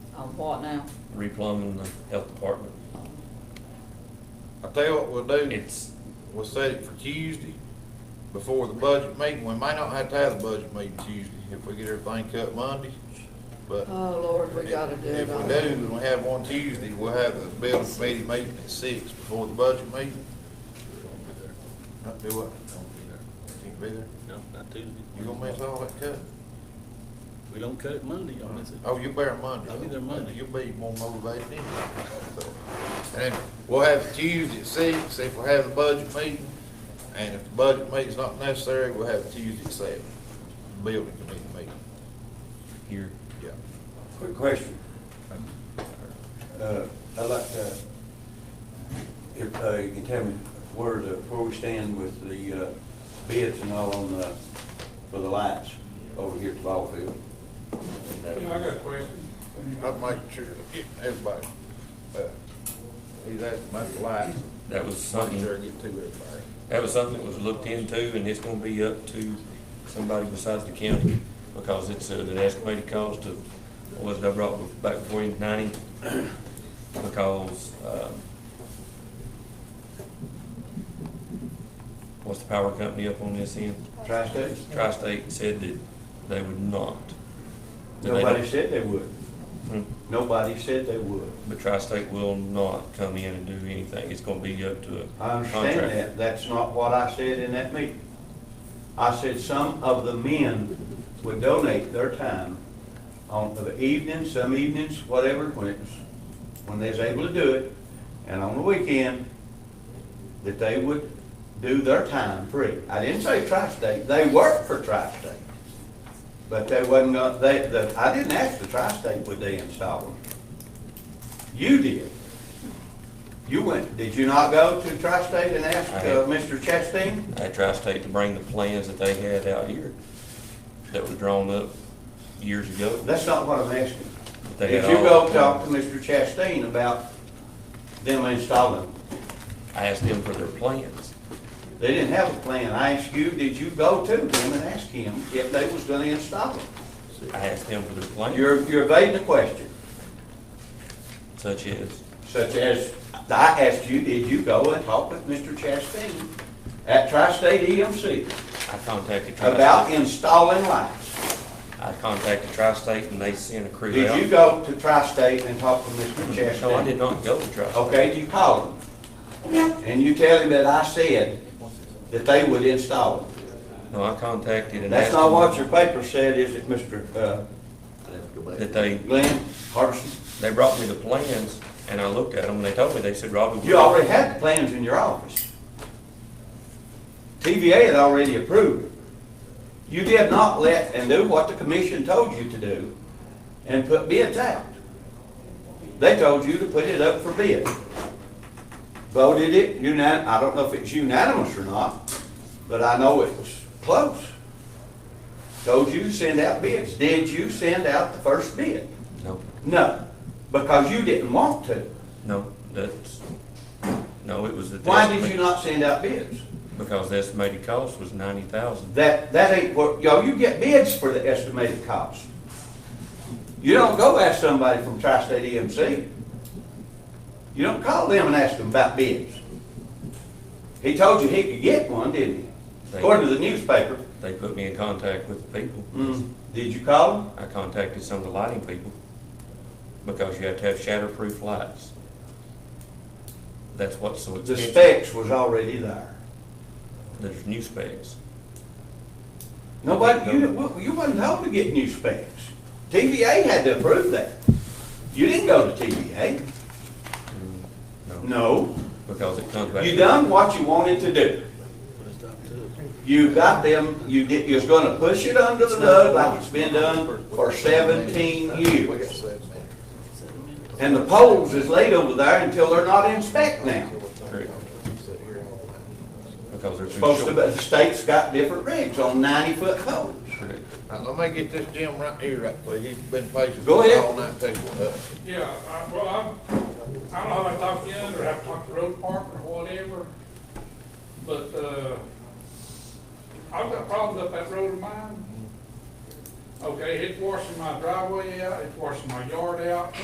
What now? replumbing the health department. I tell you what we'll do, It's, we'll set it for Tuesday before the budget meeting. We may not have to have the budget meeting Tuesday if we get everything cut Monday, but. Oh, Lord, we gotta do it If all. we do, and we have one Tuesday, we'll have the building committee meeting at six before the budget meeting. Not do what? Can't be there. No, not Tuesday. You gonna miss all that cut? We don't cut it Monday, y'all miss it. Oh, you bear Monday. I'll be there Monday. You'll be more motivated anyway. So, And then we'll have it Tuesday at six, if we have the budget meeting, and if the budget meeting's not necessary, we'll have it Tuesday at seven, building committee meeting, you're, yeah. Quick question. Uh, I'd like to, if uh, you can tell me where the, where we stand with the uh, bids and all on the, for the lights over here at the ball field. got a question. I'm making sure, everybody, uh, he's asking about the lights, that was making sure I something, get to everybody. that was something that was looked into, and it's gonna be up to somebody besides the county, because it's, uh, the estimated cost of, what was it I brought back before you, ninety? Because, um, what's the power company up on this end? Tri-State? Tri-State said that they would not. That they Nobody don't- said they would. Hmm. Nobody said they would. But Tri-State will not come in and do anything. It's gonna be up to a I contractor. understand that, that's not what I said in that meeting. I said some of the men would donate their time on the evenings, some evenings, whatever, when it's, when they was able to do it, and on the weekend, that they would do their time free. I didn't say tri-state, they work for tri-state, but they wasn't, gonna- they, the, I didn't ask the tri-state would they install them. You did. You went, did you not go to Tri-State and ask I uh, have. Mr. Chastain? At Tri-State to bring the plans that they had out here that were drawn up years ago. That's not what I'm asking. They Did had you all go the talk to plans. Mr. Chastain about them installing? I asked them for their plans. They didn't have a plan. I asked you, did you go to them and ask him if they was gonna install them? I asked them for their plans, You're, you're evading the question, such as, such as, I asked you, did you go and talk with Mr. Chastain at Tri-State EMC I contacted about Tri-State. installing lights? I contacted Tri-State and they sent a crew out. Did you go to Tri-State and talk with Mr. Chastain? No, I did not go to Tri-State. Okay, you call him. And you tell him that I said that they would install them. No, I contacted and That's asked not what your them paper said, is it, Mr. uh, that they, Glenn Hardison? they brought me the plans and I looked at them and they told me, they said, Robbie. You already had the plans in your office. TVA had already approved. it. You did not let and do what the commission told you to do and put bids out. They told you to put it up for bid. Voted it unan, I don't know if it's unanimous or not, but I know it was close. Told you to send out bids. Did you send out the first bid? No, No, because you didn't want to. no, that's, no, it was the. Why did you not send out bids? Because the estimated cost was ninety thousand. That, that ain't what, y'all, you get bids for the estimated cost. You don't go ask somebody from Tri-State EMC. You don't call them and ask them about bids. He told you he could get one, didn't he? According to the newspaper. They put me in contact with the people. Mm, Did you call him? I contacted some of the lighting people because you have to have shatterproof lights. That's what's so The expensive. specs was already there. There's new specs. Nobody, you, well, you wasn't told to get new specs. TVA had to approve that. You didn't go to TVA. No. Because it comes back. You done what you wanted to do. But it's not Tuesday. You got them, you did, you're gonna push it under the rug like it's been done for seventeen We got years. seven minutes. And the poles is laid over there until they're not in spec now. Correct. Because they're too Supposed to, short. but the state's got different regs on ninety-foot poles. Correct. Now, let me get this Jim right here, right quick. He's been patient Go ahead. all night, too. Uh, Yeah, I, well, I'm, I don't know how I talked to you, or have talked to road department or whatever, but, uh, I've got problems up that road of mine. Okay, it's washing my driveway out, it's washing my yard out,